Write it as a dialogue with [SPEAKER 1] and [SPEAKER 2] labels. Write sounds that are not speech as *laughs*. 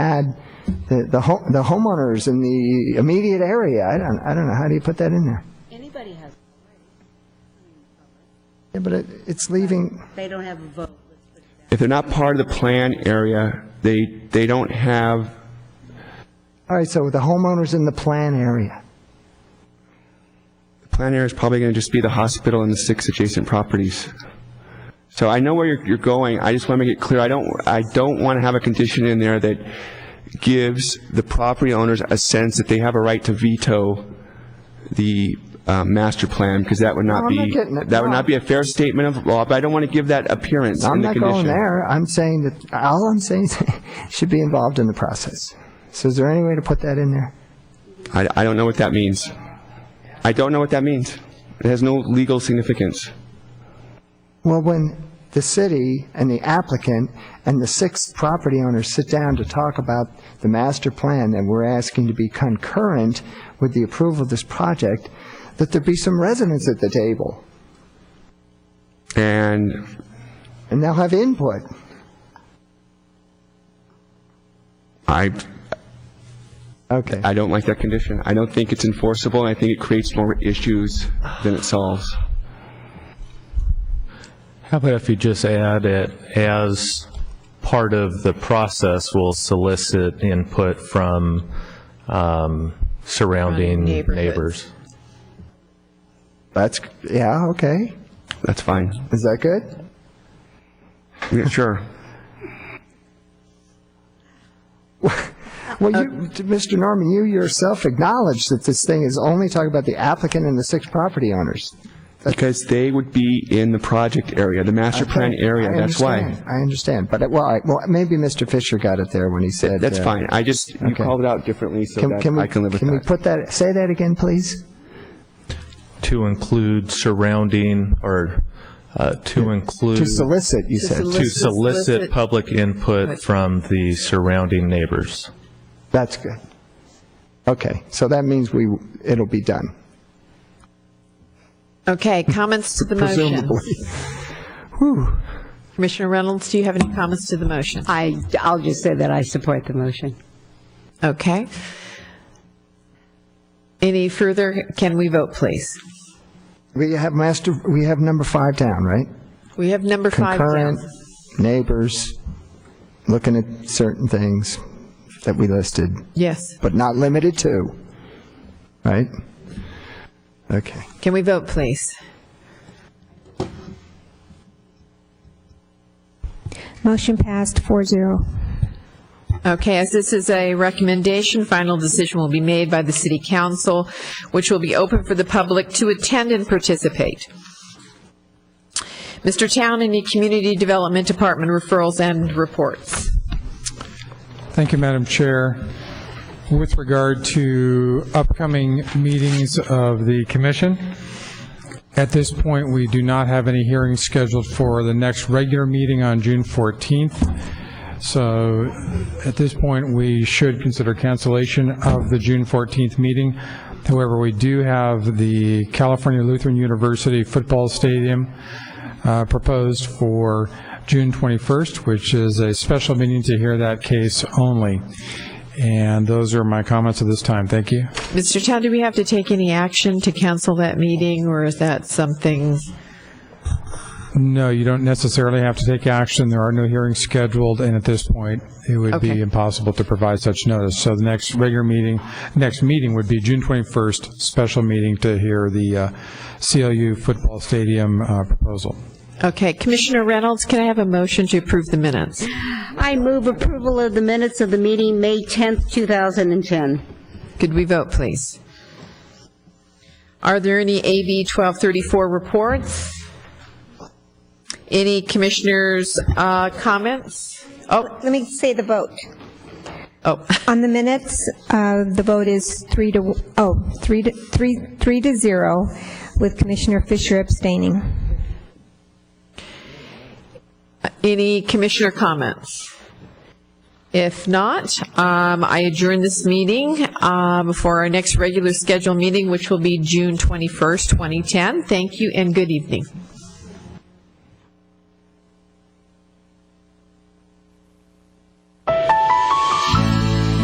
[SPEAKER 1] had the, the ho- the homeowners in the immediate area. I don't, I don't know, how do you put that in there?
[SPEAKER 2] Anybody has,
[SPEAKER 1] Yeah, But it, it's leaving,
[SPEAKER 2] they don't have a vote.
[SPEAKER 3] If they're not part of the plan area, they, they don't have,
[SPEAKER 1] all right, so the homeowners in the plan area.
[SPEAKER 3] the plan area is probably going to just be the hospital and the six adjacent properties. So I know where you're, you're going, I just want to make it clear, I don't, I don't want to have a condition in there that gives the property owners a sense that they have a right to veto the uh, master plan, because that would
[SPEAKER 1] No,
[SPEAKER 3] not
[SPEAKER 1] I'm not
[SPEAKER 3] be,
[SPEAKER 1] getting it.
[SPEAKER 3] that would
[SPEAKER 1] No.
[SPEAKER 3] not be a fair statement of law, but I don't want to give that appearance
[SPEAKER 1] I'm
[SPEAKER 3] in the
[SPEAKER 1] not
[SPEAKER 3] condition.
[SPEAKER 1] going there, I'm saying that, all I'm saying is, *laughs* should be involved in the process. So is there any way to put that in there?
[SPEAKER 3] I, I don't know what that means. I don't know what that means. It has no legal significance.
[SPEAKER 1] Well, when the city and the applicant and the six property owners sit down to talk about the master plan that we're asking to be concurrent with the approval of this project, that there be some residents at the table,
[SPEAKER 3] And
[SPEAKER 1] and they'll have input.
[SPEAKER 3] I,
[SPEAKER 1] Okay.
[SPEAKER 3] I don't like that condition. I don't think it's enforceable, and I think it creates more issues than it solves.
[SPEAKER 4] How about if you just add it as part of the process, we'll solicit input from um, surrounding
[SPEAKER 5] Surrounding
[SPEAKER 4] neighbors?
[SPEAKER 1] That's, yeah, okay.
[SPEAKER 3] That's fine.
[SPEAKER 1] Is that good?
[SPEAKER 3] Yeah, sure.
[SPEAKER 1] Well,
[SPEAKER 3] Uh,
[SPEAKER 1] you, Mr. Norman, you yourself acknowledged that this thing is only talking about the applicant and the six property owners.
[SPEAKER 3] Because they would be in the project area, the master plan area,
[SPEAKER 1] I
[SPEAKER 3] that's why.
[SPEAKER 1] understand, I understand, but, well, I- well, maybe Mr. Fisher got it there when he said.
[SPEAKER 3] That's
[SPEAKER 1] uh,
[SPEAKER 3] fine. I just, you
[SPEAKER 1] okay.
[SPEAKER 3] called it out differently, so
[SPEAKER 1] Can,
[SPEAKER 3] that
[SPEAKER 1] can we,
[SPEAKER 3] I can live with
[SPEAKER 1] can we
[SPEAKER 3] that.
[SPEAKER 1] put that, say that again, please?
[SPEAKER 4] To include surrounding, or uh, to include,
[SPEAKER 1] To
[SPEAKER 4] to
[SPEAKER 1] solicit, you said.
[SPEAKER 5] solic-
[SPEAKER 4] solicit
[SPEAKER 5] Solicit.
[SPEAKER 4] public input from the surrounding neighbors.
[SPEAKER 1] That's good. Okay, so that means we, it'll be done,
[SPEAKER 5] Okay, comments to the motion.
[SPEAKER 1] presumably.
[SPEAKER 5] Commissioner Reynolds, do you have any comments to the motion?
[SPEAKER 2] I, I'll just say that I support the motion.
[SPEAKER 5] Okay. Any further, can we vote, please?
[SPEAKER 1] *laughs* We have master, we have number five down, right?
[SPEAKER 5] We have number five down.
[SPEAKER 1] Concurrent, neighbors, looking at certain things that we listed,
[SPEAKER 5] Yes.
[SPEAKER 1] but not limited to, right? Okay.
[SPEAKER 5] Can we vote, please?
[SPEAKER 6] Motion passed 4-0.
[SPEAKER 5] Okay, as this is a recommendation, final decision will be made by the city council, which will be open for the public to attend and participate. Mr. Town, any community development department referrals and reports?
[SPEAKER 7] Thank you, Madam Chair. With regard to upcoming meetings of the commission, at this point, we do not have any hearings scheduled for the next regular meeting on June 14th. So at this point, we should consider cancellation of the June 14th meeting. However, we do have the California Lutheran University Football Stadium uh, proposed for June 21st, which is a special meeting to hear that case only. And those are my comments at this time. Thank you.
[SPEAKER 5] Mr. Town, do we have to take any action to cancel that meeting, or is that something?
[SPEAKER 7] No, you don't necessarily have to take action. There are no hearings scheduled, and at this point, it would
[SPEAKER 5] Okay.
[SPEAKER 7] be impossible to provide such notice. So the next regular meeting, next meeting would be June 21st, special meeting to hear the uh, CLU football stadium uh, proposal.
[SPEAKER 5] Okay, Commissioner Reynolds, can I have a motion to approve the minutes?
[SPEAKER 2] I move approval of the minutes of the meeting, May 10th, 2010.
[SPEAKER 5] Could we vote, please? Are there any AB 1234 reports? Any commissioners' uh, comments? Oh,
[SPEAKER 6] Let me say the vote.
[SPEAKER 5] oh,
[SPEAKER 6] On the minutes, uh, the vote is 3 to, oh, 3 to, 3, 3 to 0, with Commissioner Fisher abstaining.
[SPEAKER 5] any commissioner comments? If not, um, I adjourn this meeting um, for our next regular scheduled meeting, which will be June 21st, 2010. Thank you and good evening.